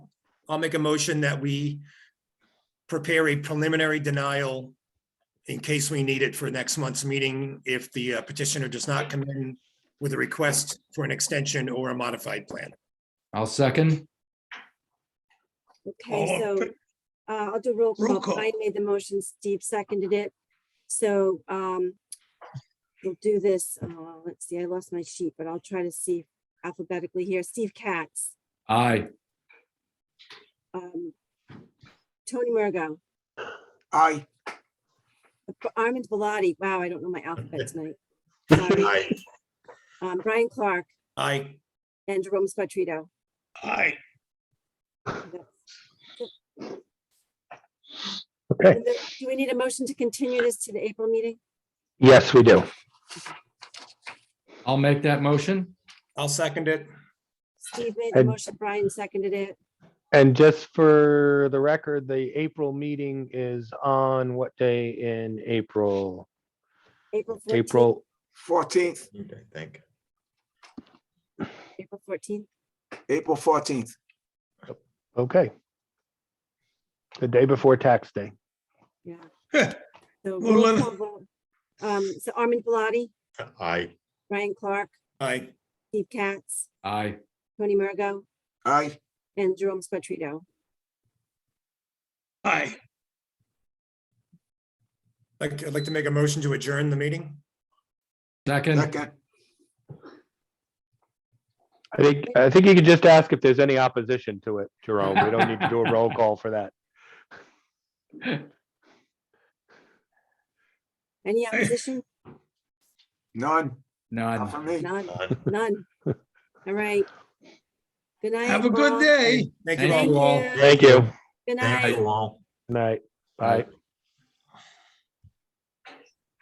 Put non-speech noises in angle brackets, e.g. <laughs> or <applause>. I'll make a motion that we prepare a preliminary denial in case we need it for next month's meeting if the uh, petitioner does not come in with a request for an extension or a modified plan. I'll second. Okay, All so in uh, I'll do roll Oh, Roll call. call. I made the motion, Steve seconded it. So um, we'll do this, uh, let's see, I lost my sheet, but I'll try to see alphabetically here. Steve Katz, Aye. um, Tony Mergo, Aye. Armand Biladi. Wow, I don't know my <laughs> alphabet tonight. Sorry. Aye. Um, Brian Clark Aye. and Jerome Spatrito. Aye. Okay, And then, Do we need a motion to continue this to the April meeting? yes, we do. I'll make that motion. I'll second it. Steve made the And- motion, Brian seconded it. And just for the record, the April meeting is on what day in April? April 14th. April, Fourteenth, I think. April 14th. April fourteenth. okay. The day before tax day. Yeah. Huh. So Well, roll let- call vote. Um, so Armin Biladi, I, Ryan Clark, Aye. Steve Katz, Aye. Tony Mergo, Aye. and Jerome Spatrito. Aye. Like, I'd like to make a motion to adjourn the meeting. Second. Second. I think, I think you could just ask if there's any opposition to it, Jerome. We don't need to do a roll call for that. Any opposition? None. None. Not for me. None, uh, none. All right. Good night. Have a good all. day. Thank you all. Thank Thank you all. you. Thank you. Good night. thank you all. Night. Bye.